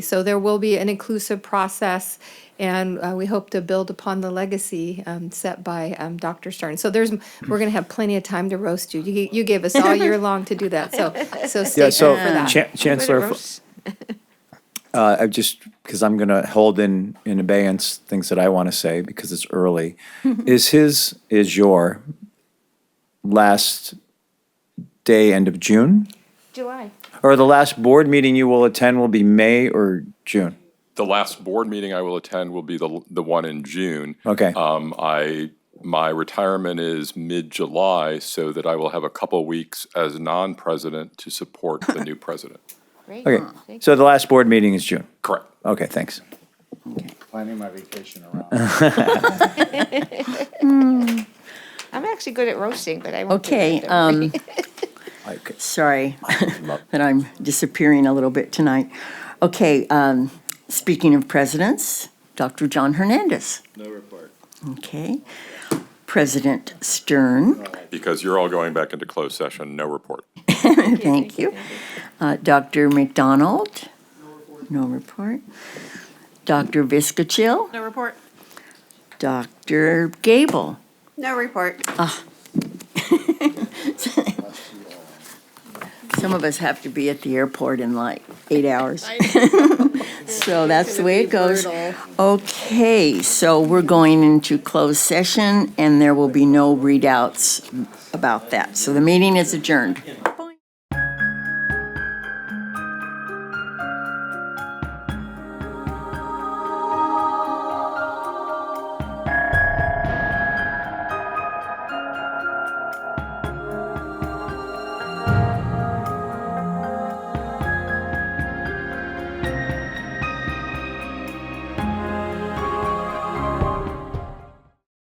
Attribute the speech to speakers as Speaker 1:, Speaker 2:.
Speaker 1: So there will be an inclusive process, and uh, we hope to build upon the legacy um, set by um, Dr. Stern. So there's, we're going to have plenty of time to roast you. You you gave us all year long to do that, so, so stay
Speaker 2: Yeah,
Speaker 1: tuned for
Speaker 2: so
Speaker 1: that.
Speaker 2: Chan- Chancellor, if- uh, I just, because I'm going to hold in, in abeyance things that I want to say because it's early. Is his, is your last day, end of June?
Speaker 3: July.
Speaker 2: Or the last board meeting you will attend will be May or June?
Speaker 4: The last board meeting I will attend will be the, the one in June.
Speaker 2: Okay.
Speaker 4: Um, I, my retirement is mid-July, so that I will have a couple weeks as non-president to support the new president.
Speaker 3: Great.
Speaker 2: Okay, so the last board meeting is June.
Speaker 4: Correct.
Speaker 2: Okay, thanks.
Speaker 5: planning my vacation around.
Speaker 3: I'm actually good at roasting, but I won't. do
Speaker 6: Okay,
Speaker 3: it.
Speaker 6: um,
Speaker 2: Okay.
Speaker 6: sorry that I'm disappearing a little bit tonight. Okay, um, speaking of presidents, Dr. John Hernandez. No report. Okay. President Stern,
Speaker 4: Because you're all going back into closed session, no report.
Speaker 6: thank you. Uh, Dr. McDonald. No report. Dr. Viscachill.
Speaker 7: No report.
Speaker 6: Dr. Gable.
Speaker 7: No report.
Speaker 6: Some of us have to be at the airport in like eight hours. So that's the way it goes. Okay, so we're going into closed session, and there will be no readouts about that. So the meeting is adjourned.